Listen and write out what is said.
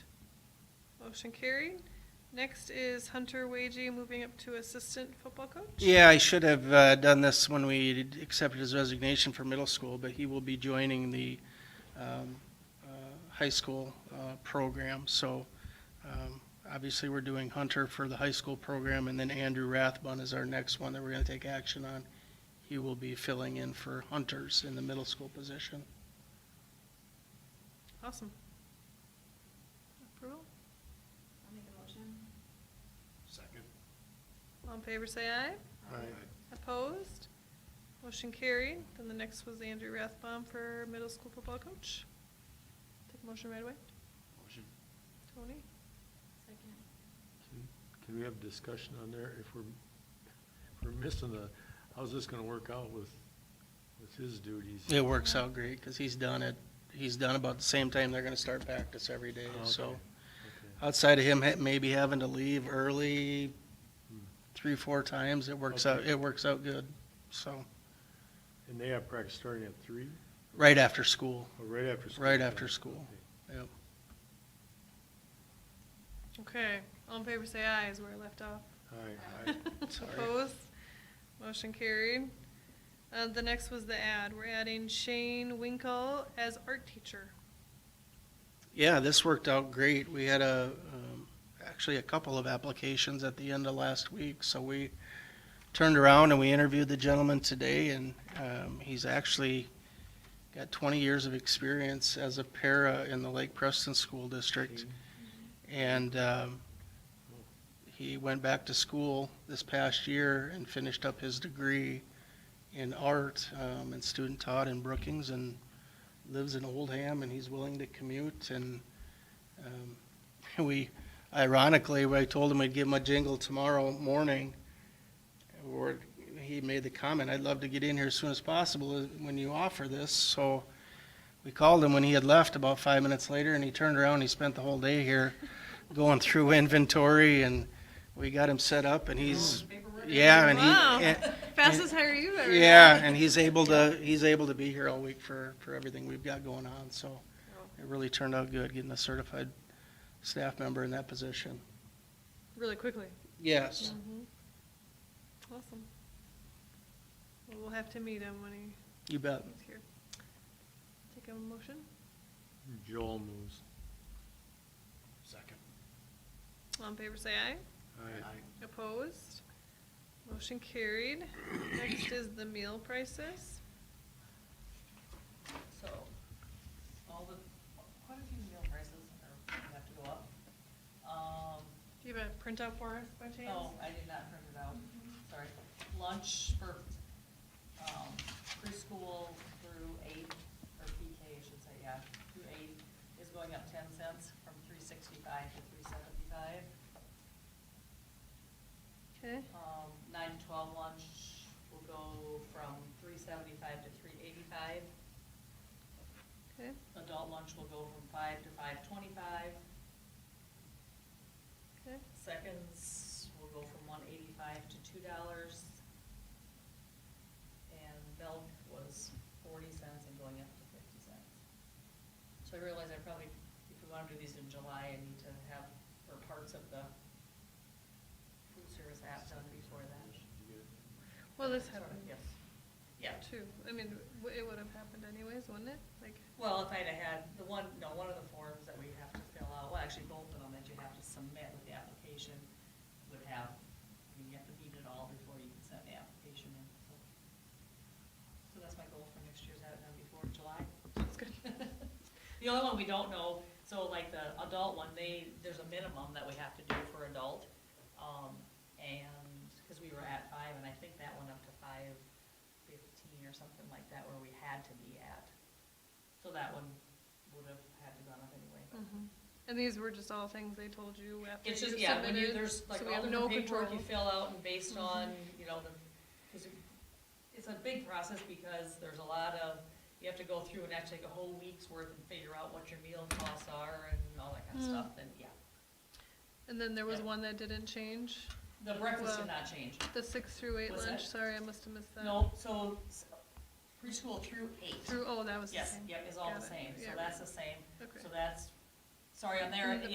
Motion carried. Next is Hunter Wagey moving up to assistant football coach. Yeah, I should have uh, done this when we d- accepted his resignation for middle school, but he will be joining the um, uh, high school uh, program. So um, obviously, we're doing Hunter for the high school program, and then Andrew Rathbun is our next one that we're going to take action on. He will be filling in for Hunters in the middle school position. Awesome. Approval? I'll make a motion. Second. All in favor, say aye. Opposed? Motion carried. Then the next was Andrew Rathbaum for middle school football coach. Take a motion right away. Motion. Tony? Second. Can we have a discussion on there if we're, if we're missing a, how's this gonna work out with, with his duties? It works out great because he's done it. He's done about the same time they're going to start practice every day. Oh, Okay. So Okay. outside of him ha- maybe having to leave early three, four times, it works out, Okay. it works out good. So, And they have practice starting at three, right after school. or right after school? Right after Okay. school. Yep. Okay, all in favor, say aye, as we're left off. Aye, aye. Sorry. Opposed? Motion carried. Uh, the next was the ad. We're adding Shane Winkle as art teacher. Yeah, this worked out great. We had a, um, actually a couple of applications at the end of last week, so we turned around and we interviewed the gentleman today, and um, he's actually got 20 years of experience as a para in the Lake Preston School District. And um, he went back to school this past year and finished up his degree in art um, and student taught in Brookings, and lives in Oldham and he's willing to commute and um, we ironically I told him I'd give him a jingle tomorrow morning or he made the comment I'd love to get in here as soon as possible uh, when you offer this so we called him when he had left about five minutes later and he turned around and he spent the whole day here going through inventory and we got him set up and he's yeah and Wow. he and- Fastest hire you've ever had. yeah, and he's able to, he's able to be here all week for, for everything we've got going on, so it really turned out good getting a certified staff member in that position. Really quickly. Yes. Mm-hmm. Awesome. Well, We'll have to meet him when he You bet. comes here. Take a motion. Joel moves. Second. All in favor, say aye. Opposed? Motion carried. Next is the meal prices. So, all the, quite a few meal prices are, have to go up. Um, Do you have a printout for us by chance? no, I did not print it out, sorry. Lunch for, um, preschool through eight, or PK, I should say, yeah, through eight, is going up ten cents from three sixty-five to three seventy-five. Okay, Um, nine to twelve lunch will go from three seventy-five to three eighty-five. okay. Adult lunch will go from five to five twenty-five. Okay. Seconds will go from one eighty-five to two dollars. And milk was forty cents and going up to fifty cents. So I realize I probably, if we wanna do these in July, I need to have, or parts of the food service app done before that. Well, this Sorry, happened Yes. Yeah, too. I mean, w- it would have happened anyways, wouldn't it? Like, Well, if I'd have had the one, no, one of the forms that we have to fill out, well, actually both of them that you have to submit with the application would have, I mean, you have to meet it all before you can send the application in, so. So that's my goal for next year's, have it done before July. that's good. The only one we don't know, so like the adult one, they, there's a minimum that we have to do for adult. Um, and, cause we were at five, and I think that went up to five fifteen or something like that where we had to be at. So that one would have had to gone up anyway, but. Mhm. And these were just all things they told you after you It's just, yeah, when you, submitted, there's like so we all have no different paperwork you control. Mm-hmm. fill out and based on, you know, the, cause it- it's a big process because there's a lot of, you have to go through and actually take a whole week's worth and figure out what your meal costs are and all that Mm. kind of stuff, and yeah. And then there was Yeah. one that didn't change, The breakfast did Well- not change. the six through eight Was lunch, that- sorry, I must have missed that. No, so s- preschool through eight, Through, oh, that was the yes, same. yep, is all Got the it. same, so Yeah, that's the same, Okay. so that's, sorry, on there, And the